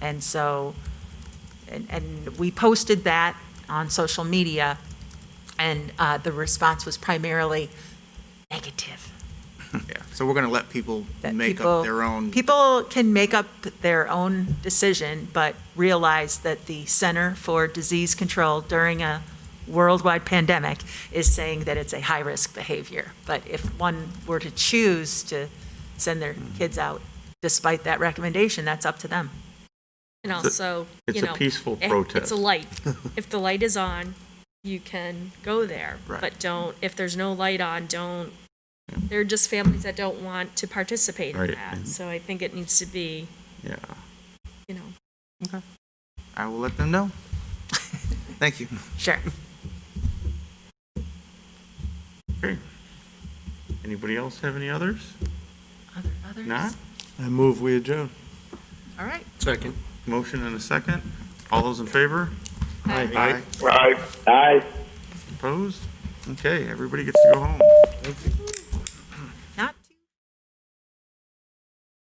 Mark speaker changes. Speaker 1: And so, and, and we posted that on social media, and uh, the response was primarily negative.
Speaker 2: Yeah, so we're gonna let people
Speaker 1: that
Speaker 2: make
Speaker 1: people-
Speaker 2: up their own.
Speaker 1: People can make up their own decision, but realize that the Center for Disease Control during a worldwide pandemic is saying that it's a high-risk behavior. But if one were to choose to send their
Speaker 3: Hmm.
Speaker 1: kids out despite that recommendation, that's up to them.
Speaker 4: And
Speaker 3: It's a-
Speaker 4: also,
Speaker 3: it's
Speaker 4: you
Speaker 3: a
Speaker 4: know,
Speaker 3: peaceful
Speaker 4: eh, It's
Speaker 3: protest.
Speaker 4: a light. If the light is on, you can go there.
Speaker 3: Right.
Speaker 4: But don't, if there's no light on, don't, there are just families that don't want to participate in
Speaker 3: Right,
Speaker 4: that.
Speaker 3: and-
Speaker 4: So I think it needs to be,
Speaker 3: Yeah.
Speaker 4: you know,
Speaker 2: I will let them know. Thank you.
Speaker 1: Sure.
Speaker 3: Okay. Anybody else have any others?
Speaker 1: Other- Others?
Speaker 3: Not?
Speaker 5: I move we adjourn.
Speaker 1: All right.
Speaker 5: Second.
Speaker 3: Motion and a second. All those in favor? Aye.
Speaker 6: Right. Aye.
Speaker 3: Opposed? Okay, everybody gets to go home.